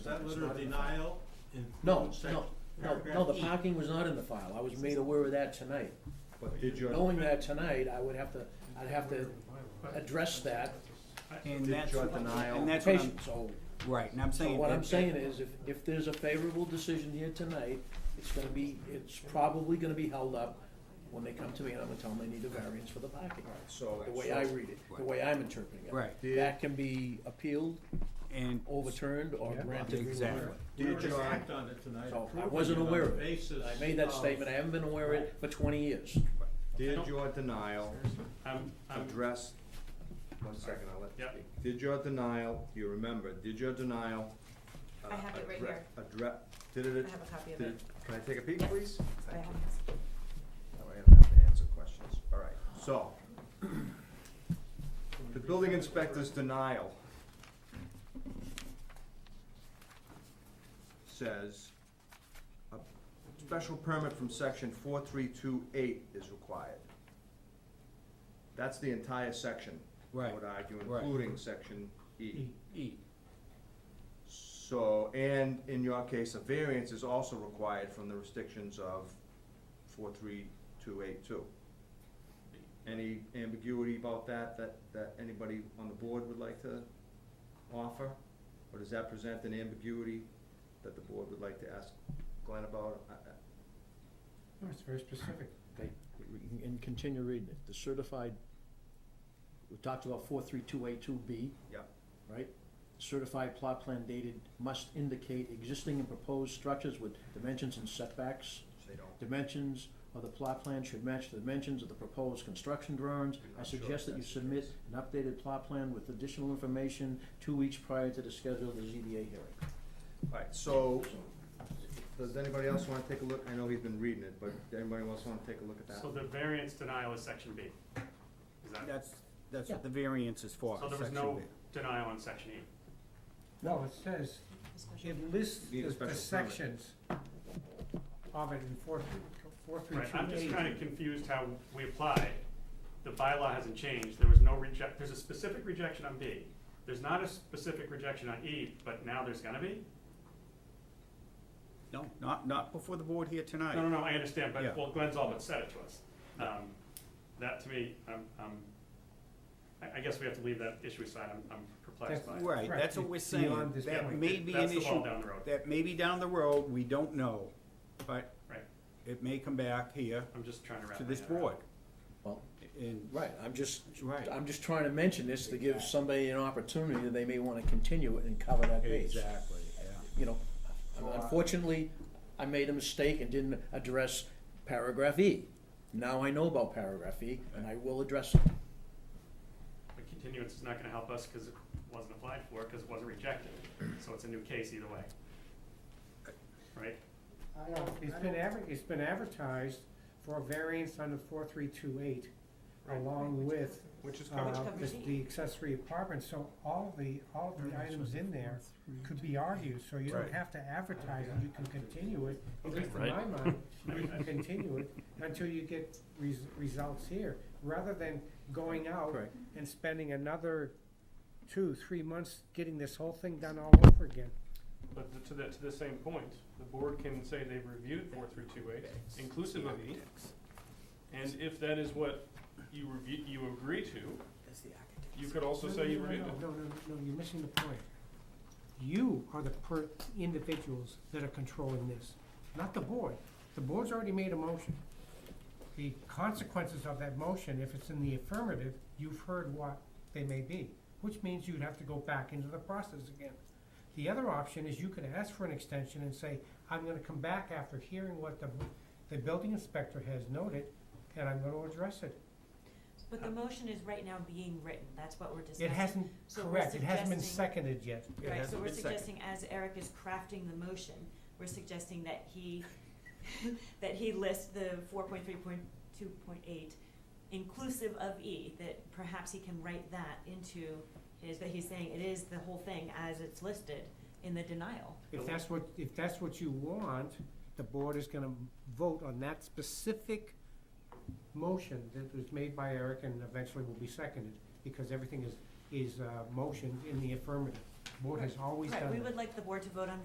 Is that letter of It's not in the denial No, includes that no, no, no, the paragraph E? parking was not in the file, I was made aware of that tonight. But did your, Knowing that tonight, I would have to, I'd have to address that And Did that's, your what- denial- and that's what application, I'm, so, right, and I'm so saying. what that- I'm saying is, if, if there's a favorable decision here tonight, it's gonna be, it's probably gonna be held up when they come to me and I'm gonna tell them they need a variance for the parking. so, The way I read it, the way I'm interpreting it. Right. That can be appealed, And, overturned, or granted relief. exactly. We Did already your- act on it tonight. So I approving wasn't it on aware the of it. basis I made that of- statement, I haven't been aware of it for twenty years. did your denial I'm, I'm, address, one second, I'll let you Yep. speak. Did your denial, you remember, did your denial? uh, I have it addre- right here. Address, did it? I have a copy of did it. Can I take a peek, Yes. please? I Thank you. have this. That way I don't have to answer questions. All right, so. The building inspector's denial says a special permit from section four three two eight is required. That's the entire section, I would Right, argue, right. including section E. E, So, and in your case, a variance is also required from the restrictions of four three two eight two. Any ambiguity about that, that, that anybody on the board would like to offer? Or does that present an ambiguity that the board would like to ask Glenn about? I- I- No, it's very specific. And continue reading it, the certified, we talked about four three two eight two B, Yep, right? Certified plot plan dated must indicate existing and proposed structures with dimensions and setbacks. they don't. Dimensions of the plot plan should match the dimensions of the proposed construction drawings. I'm I not sure suggest if that you that's the submit case. an updated plot plan with additional information two weeks prior to the schedule of the ZBA hearing. All right, so, does anybody else wanna take a look? I know he's been reading it, but anybody else wanna take a look at that? so the variance denial is section B. Is that, that's, that's what the variance is for, so there was section no B. denial on section E? No, it says, it lists Need a the special the permit. sections of it in four, three- four, three, Right, I'm two, just eight. kinda confused how we applied. The bylaw hasn't changed, there was no reject, there's a specific rejection on B. There's not a specific rejection on E, but now there's gonna be? No, not, not before the board here tonight. No, no, no, I understand, Yeah. but, well, Glenn's all but said it to us. Um, That to me, I'm, I'm, I, I guess we have to leave that issue aside, I'm, I'm perplexed by it. Right, Correct. that's what we're It's saying, beyond this that point. may be an That's issue. the ball down the road. That may be down the road, we don't know, but Right, it may come back here I'm just trying to wrap to my this head around it. board. Well, And, Right, I'm just, Right. I'm just trying to mention this to give somebody an opportunity that they may wanna continue it and cover that base. exactly, yeah. You know, unfortunately, I made a mistake and didn't address paragraph E. Now I know about paragraph E, and I will address it. But continuance is not gonna help us because it wasn't applied for, because it wasn't rejected, so it's a new case either way. Right? No, It's been adver, it's been advertised for a variance under four, three, two, eight, along with, Which is uh, covered. the, the accessory apartment, so all the, all of the items in there could be argued, so you Right. don't have to advertise it, you can continue it, at least in my Right. mind, you can continue it until you get res- results here, rather than going out Correct. and spending another two, three months getting this whole thing done all over again. But th- to the, to the same point, the board can say they've reviewed four through two eight, inclusive of E, and if that is what you review, you agree to, you could also No, say you no, no, reviewed No, it. no, no, no, you're missing the point. You are the per, individuals that are controlling this, not the board. The board's already made a motion. The consequences of that motion, if it's in the affirmative, you've heard what they may be, which means you'd have to go back into the process again. The other option is you could ask for an extension and say, I'm gonna come back after hearing what the, the building inspector has noted, and I'm gonna address it. But the motion is right now being written, that's what we're discussing. It hasn't, So we're correct, it hasn't been suggesting- seconded yet. It Right, so hasn't we're been seconded. suggesting, as Eric is crafting the motion, we're suggesting that he, that he list the four point three point two point eight inclusive of E, that perhaps he can write that into his, that he's saying it is the whole thing as it's listed in the denial. If that's what, if that's what you want, the board is gonna vote on that specific motion that was made by Eric and eventually will be seconded, because everything is, is, uh, motioned in the affirmative. board has always done Right, that. we would like the board to vote on